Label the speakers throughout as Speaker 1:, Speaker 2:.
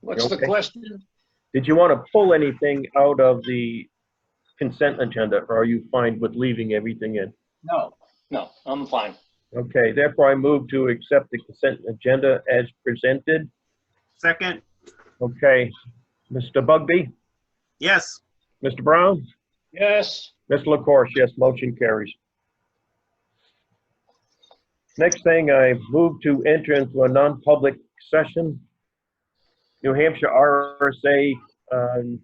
Speaker 1: What's the
Speaker 2: Okay.
Speaker 1: question?
Speaker 2: Did you want to pull anything out of the consent agenda, or are you fine with leaving everything in?
Speaker 1: No, no, I'm fine.
Speaker 2: Okay, therefore I move to accept the consent agenda as presented.
Speaker 3: Second,
Speaker 2: Okay, Mr. Bugby,
Speaker 3: yes.
Speaker 2: Mr. Brown,
Speaker 1: Yes,
Speaker 2: Ms. LaCourse, yes, motion carries. Next thing, I move to enter into a non-public session. New Hampshire RSA, um,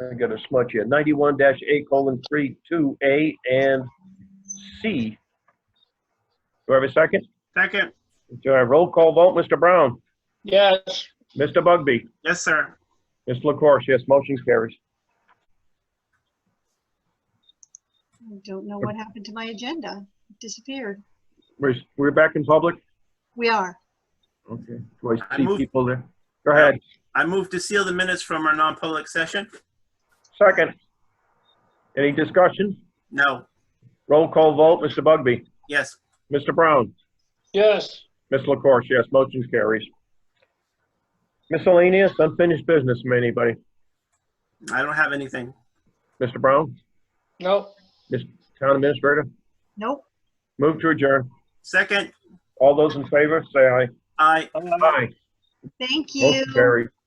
Speaker 2: I got a smudge here, ninety-one dash A colon three, two, A and C. Do I have a second?
Speaker 3: Second,
Speaker 2: Do I roll call vote? Mr. Brown,
Speaker 1: yes,
Speaker 2: Mr. Bugby,
Speaker 3: yes, sir.
Speaker 2: Ms. LaCourse, yes, motion carries.
Speaker 4: I don't know what happened to my agenda. It disappeared.
Speaker 2: We're, we're back in public?
Speaker 4: We are.
Speaker 2: Okay, do I
Speaker 3: I
Speaker 2: see
Speaker 3: move-
Speaker 2: people there? Go ahead,
Speaker 3: I move to seal the minutes from our non-public session.
Speaker 2: second. Any discussion?
Speaker 3: No,
Speaker 2: Roll call vote, Mr. Bugby,
Speaker 3: yes.
Speaker 2: Mr. Brown,
Speaker 1: yes.
Speaker 2: Ms. LaCourse, yes, motion carries. Miscellaneous, unfinished business from anybody?
Speaker 3: I don't have anything.
Speaker 2: Mr. Brown,
Speaker 1: No,
Speaker 2: Town Administrator,
Speaker 4: Nope.
Speaker 2: move to adjourn.
Speaker 3: Second,
Speaker 2: All those in favor, say aye.
Speaker 3: I.
Speaker 1: I'm not-
Speaker 2: Aye.
Speaker 4: Thank you.
Speaker 2: Motion carries.